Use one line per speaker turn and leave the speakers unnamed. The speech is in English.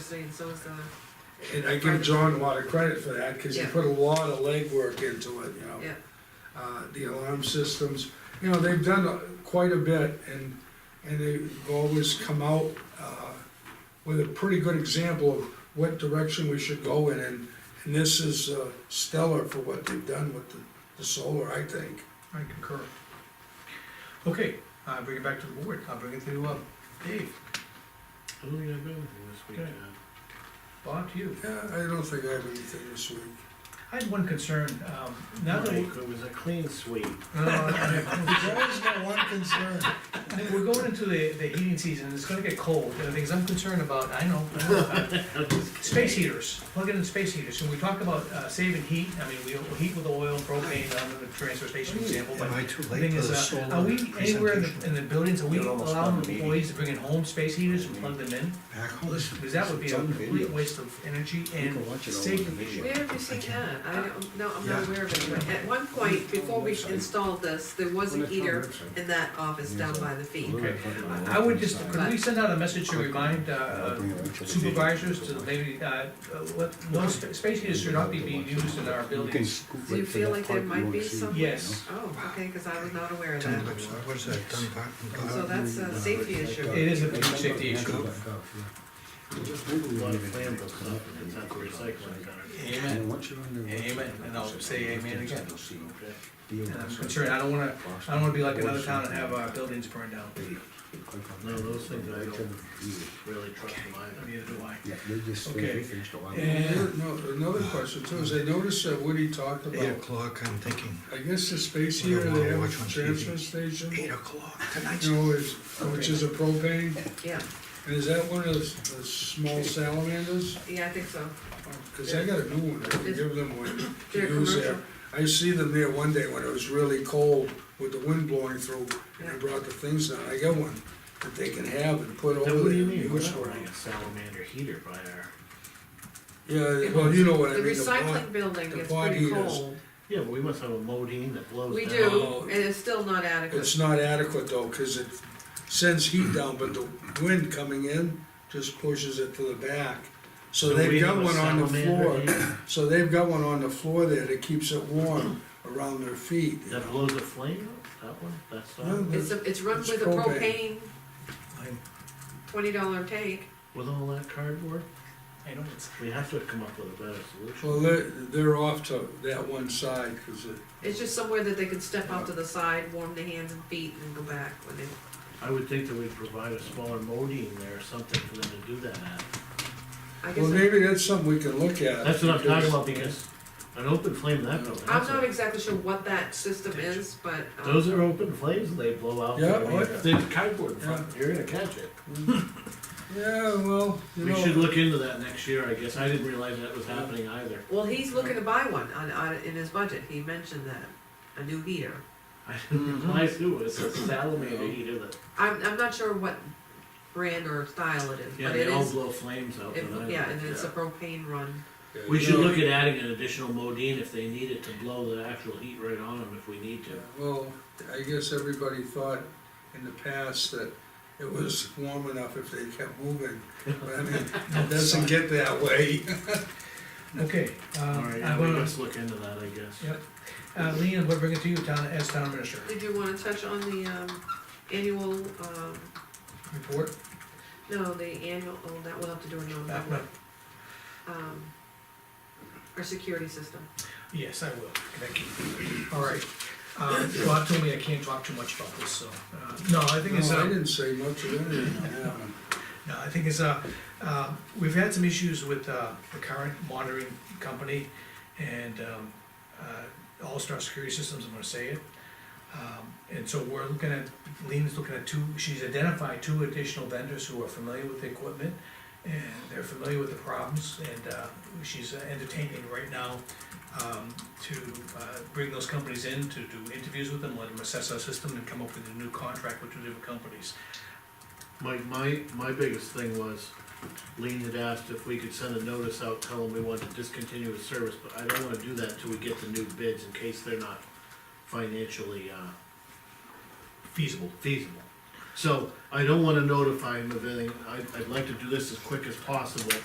today, and so is the,
And I give John a lot of credit for that, cause he
Yeah.
put a lot of legwork into it, you know?
yeah,
Uh, the alarm systems, you know, they've done uh, quite a bit and, and they've always come out, uh, with a pretty good example of what direction we should go in and, and this is uh, stellar for what they've done with the, the solar, I think.
I concur. Okay, uh, bring it back to the board, I'll bring it to, uh, Dave,
I don't think I've got anything this week,
Okay.
uh,
Bob, to you.
Yeah, I don't think I have anything this week.
I had one concern, um, now that we,
Mike, It was a clean sweep.
No, no, no, no.
always got one concern.
we're going into the, the heating season, it's gonna get cold, and the things I'm concerned about, I know, I know about it. space heaters, plug in space heaters, and we talk about, uh, saving heat, I mean, we, we heat with oil, propane, I'm the transfer station example, but
Am I too
the
late
thing
for
is,
the
uh,
solar
are we anywhere in the, in
presentation?
the buildings, are we
You'll almost
allowing
done the meeting.
employees to bring in home space heaters and plug them in?
Back home.
Because that would be
It's
a
on
complete
video.
waste of energy
You
and
can watch it all on
safety
video.
issue.
where have you seen that? I don't, no, I'm not
Yeah.
aware of it, but at one point, before we installed this, there was a heater in that office down by the feet.
Okay. I would just, could we send out a message to remind uh, supervisors to maybe, uh, let, no, spa- space heaters should not be being used in our buildings.
Do you feel like there might be some?
Yes.
Oh, okay, because I was not aware of
Turn it
that.
upside, what is that, turn it back and go
So
out?
that's a safety issue.
It is a big safety issue.
A lot of flammable stuff, and it's not recycling center.
Amen.
Amen, and I'll say amen again.
And I'm concerned, I don't wanna, I don't wanna be like another town and have uh, our buildings burned down.
No, those things I don't really trust mine.
Neither do I.
Okay.
And,
No, another question too, is I noticed that Woody talked
Eight
about,
o'clock, I'm thinking,
I guess the space heater they have at the transfer
eight
station,
o'clock tonight.
you know, is, which is a propane,
Yeah,
and is that one of those- those small salamanders?
yeah, I think so.
Cause I got a new one, I can give them one to
They're
use there.
commercial.
I see them there one day when it was really cold with the wind blowing through, and I
Yeah.
brought the things down, I got one that they can have and put over
Now,
there.
what do you
and
mean, we're
use
not
for it.
running a salamander heater by our,
Yeah, well, you know what I
The
mean, the
recycling
pot,
building
the
gets
pot
pretty
heaters.
cold.
yeah, but we must have a modine that blows down.
We do, and it's still not adequate.
it's not adequate though, cause it sends heat down, but the wind coming in just pushes it to the back. So
Do we
they've got
have a
one on the
salamander
floor,
heater
so they've got one on the floor there that keeps it warm around their feet, you
That
know.
blows a flame out, that one, that's
No,
not,
no.
It's, a- it's run
It's
with a propane,
propane.
twenty dollar tank.
with all that cardboard,
I know it's,
we have to come up with a better
Well,
solution.
they're, they're off to that one side, cause it,
It's just somewhere that they can step out to the side, warm their hands and feet, and go back when they
I would think that we'd provide a smaller modine there or something for them to do that at.
I
well,
guess,
maybe that's something we can look at.
That's what I'm talking about, because an open flame, that building,
I'm
that's
not
a-
exactly sure what that system is, but,
those
um,
are open flames, and they blow out.
Yeah,
I mean,
oh,
if There's cardboard in front, you're gonna catch it.
Yeah, well, you
We should
know,
look into that next year, I guess, I didn't realize that was happening either.
well, he's looking to buy one on, on, in his budget, he mentioned that, a new heater.
I didn't
Mm-hmm.
realize it was a salamander heater that,
I'm, I'm not sure what brand or style it is,
yeah,
but
they
it
all
is,
blow flames out.
it-
but I-
yeah, and it's a propane run.
We should look at adding an additional modine if they need it to blow the actual heat right on them if we need to.
well, I guess everybody thought in the past that it was warm enough if they kept moving, but I mean, it doesn't get that way.
okay,
All
um,
right,
I'm
yeah, we
gonna,
must look into that, I guess.
yep. Uh, Lean, we'll bring it to you town, as town administrator.
Did you wanna touch on the, um, annual, um,
Report,
no, the annual, oh, that we'll have to do a
Uh,
non-public,
no,
um, our security system.
yes, I will, thank you. All right, uh, Bob told me I can't talk too much about this, so, uh, no, I think it's,
No, I
uh,
didn't say much of anything, yeah.
No, I think it's, uh, uh, we've had some issues with, uh, the current monitoring company and, um, uh, All Star Security Systems, I'm gonna say it. Um, and so we're looking at, Lean's looking at two, she's identified two additional vendors who are familiar with the equipment and they're familiar with the problems and, uh, she's entertaining right now, um, to, uh, bring those companies in to do interviews with them, let them assess our system and come up with a new contract with two different companies.
My, my, my biggest thing was, Lean had asked if we could send a notice out, tell them we want to discontinue his service, but I don't wanna do that till we get the new bids, in case they're not financially, uh,
Feasible.
feasible. So, I don't wanna notify him of anything, I, I'd like to do this as quick as possible,